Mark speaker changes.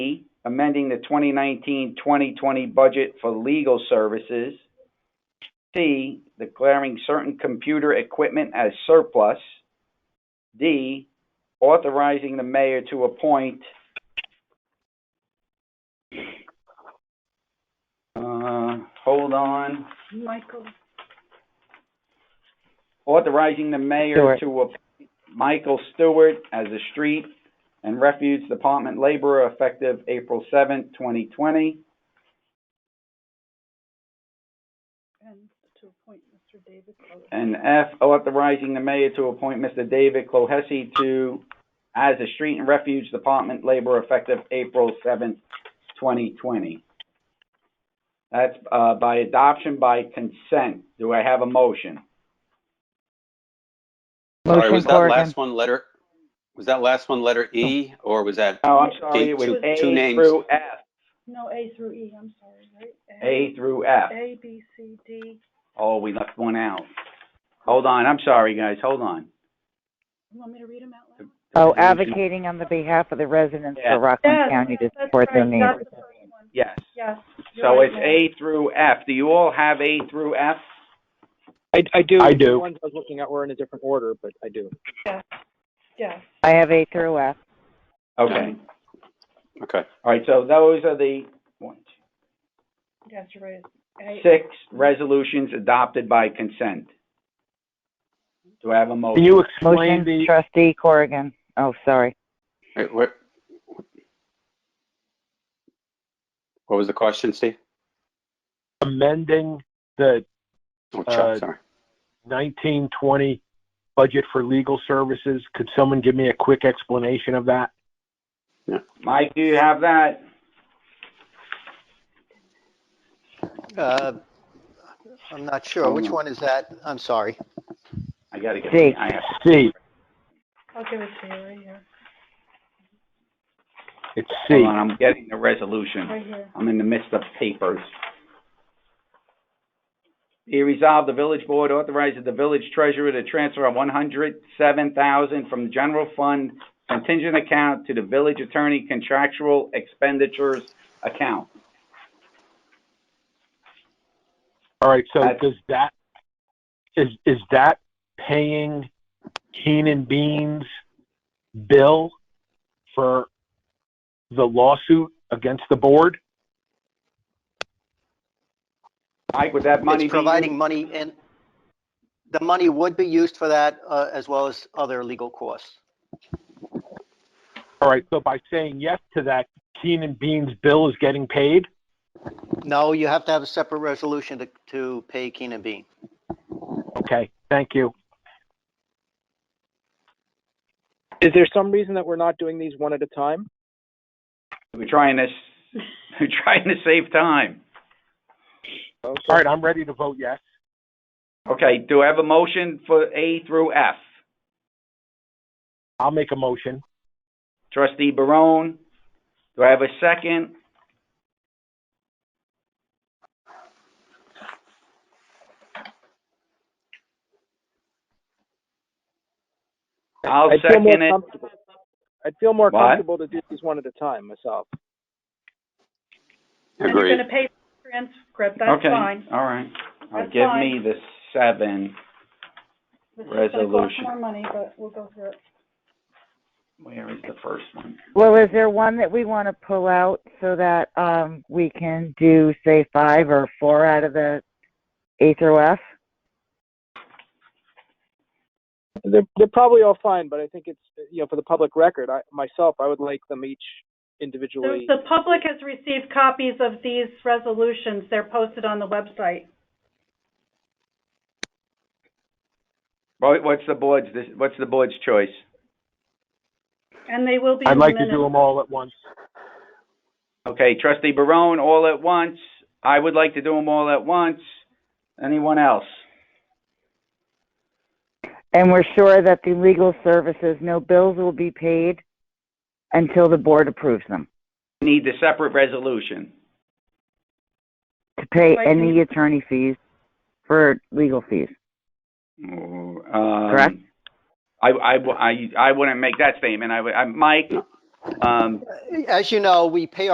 Speaker 1: amending the 2019-2020 budget for legal services. C, declaring certain computer equipment as surplus. D, authorizing the mayor to appoint uh, hold on,
Speaker 2: Michael.
Speaker 1: authorizing the mayor
Speaker 3: Stewart.
Speaker 1: to appoint Michael Stewart as a street and refuge department laborer effective April seventh, twenty twenty.
Speaker 2: And to appoint Mr. David Clover.
Speaker 1: And F, authorizing the mayor to appoint Mr. David Clohesi to, as a street and refuge department laborer effective April seventh, twenty twenty. That's, uh, by adoption by consent. Do I have a motion?
Speaker 4: Sorry,
Speaker 3: Motion
Speaker 4: was that
Speaker 3: Corrigan.
Speaker 4: last one letter, was that last one letter E, or was that,
Speaker 1: Oh, I'm sorry, it was
Speaker 2: Two-
Speaker 1: A
Speaker 4: two names.
Speaker 1: through F,
Speaker 2: No, A through E, I'm sorry, right?
Speaker 1: A through F.
Speaker 2: A, B, C, D.
Speaker 1: Oh, we left one out. Hold on, I'm sorry, guys, hold on.
Speaker 2: You want me to read them out
Speaker 3: Oh,
Speaker 2: loud?
Speaker 3: advocating on the behalf of the residents
Speaker 1: Yeah.
Speaker 3: for Rockland County to
Speaker 2: Yes, that's
Speaker 3: support their
Speaker 2: right,
Speaker 3: needs.
Speaker 2: that's the first one.
Speaker 1: Yes,
Speaker 2: Yes. you're
Speaker 1: so
Speaker 2: right,
Speaker 1: it's
Speaker 2: Mayor.
Speaker 1: A through F. Do you all have A through F?
Speaker 5: I, I do.
Speaker 6: I do.
Speaker 5: The ones I was looking at were in a different order, but I do.
Speaker 2: Yes,
Speaker 3: I have A through F.
Speaker 1: Okay,
Speaker 4: okay.
Speaker 1: all right, so those are the one, two,
Speaker 2: yes, you're right. A-
Speaker 1: six resolutions adopted by consent. Do I have a
Speaker 6: Can
Speaker 1: motion?
Speaker 6: you explain
Speaker 3: Motion
Speaker 6: the,
Speaker 3: trustee Corrigan. Oh, sorry.
Speaker 4: Wait, what? What was the question, Steve?
Speaker 6: amending the
Speaker 4: Oh,
Speaker 6: Uh,
Speaker 4: Chuck, sorry.
Speaker 6: nineteen twenty budget for legal services? Could someone give me a quick explanation of that?
Speaker 1: Mike, do you have that?
Speaker 7: Uh, I'm not sure. Which one is that? I'm sorry.
Speaker 1: I gotta get,
Speaker 3: Jake.
Speaker 1: I have,
Speaker 6: C,
Speaker 2: I'll give it to you right here,
Speaker 6: it's
Speaker 1: hold
Speaker 6: C.
Speaker 1: on, I'm getting the resolution.
Speaker 2: right here.
Speaker 1: I'm in the midst of papers. Be resolved, the village board authorizes the village treasurer to transfer one hundred seven thousand from the general fund contingent account to the village attorney contractual expenditures account.
Speaker 6: All right, so
Speaker 1: That's-
Speaker 6: does that, is, is that paying Keenan Bean's bill for the lawsuit against the board?
Speaker 1: Mike, would that money be?
Speaker 7: It's providing money and the money would be used for that, uh, as well as other legal costs.
Speaker 6: All right, so by saying yes to that, Keenan Bean's bill is getting paid?
Speaker 7: No, you have to have a separate resolution to, to pay Keenan Bean.
Speaker 6: Okay, thank you.
Speaker 5: Is there some reason that we're not doing these one at a time?
Speaker 1: We're trying to, s- we're trying to save time.
Speaker 6: All right, I'm ready to vote yes.
Speaker 1: Okay, do I have a motion for A through F?
Speaker 6: I'll make a motion.
Speaker 1: Trustee Barone, do I have a second? I'll
Speaker 5: I'd feel more
Speaker 1: second it.
Speaker 5: comfortable- I'd feel more
Speaker 1: What?
Speaker 5: comfortable to do these one at a time myself.
Speaker 2: And you're
Speaker 4: Agreed.
Speaker 2: gonna pay for the transcript, that's
Speaker 1: Okay,
Speaker 2: fine.
Speaker 1: all right. All right,
Speaker 2: That's
Speaker 1: Give
Speaker 2: fine.
Speaker 1: me the seven.
Speaker 2: This is gonna cost
Speaker 1: Resolution.
Speaker 2: More money, but we'll go through it.
Speaker 1: Where is the first one?
Speaker 3: Well, is there one that we want to pull out so that, um, we can do, say, five or four out of the A through F?
Speaker 5: They're, they're probably all fine, but I think it's, you know, for the public record, I, myself, I would like them each
Speaker 2: The,
Speaker 5: individually.
Speaker 2: the public has received copies of these resolutions, they're posted on the website.
Speaker 1: What- What's the board's, this- what's the board's choice?
Speaker 2: And they will be in
Speaker 6: I'd
Speaker 2: the
Speaker 6: like to do
Speaker 2: minutes.
Speaker 6: them all at once.
Speaker 1: Okay, trustee Barone, all at once. I would like to do them all at once. Anyone else?
Speaker 3: And we're sure that the legal services, no bills will be paid until the board approves them
Speaker 1: Need the separate resolution.
Speaker 3: to pay
Speaker 2: Right.
Speaker 3: any attorney fees for legal fees.
Speaker 1: Correct? I, I, w- I- I wouldn't make that statement. I, would- I, Mike, um,
Speaker 7: As you know, we pay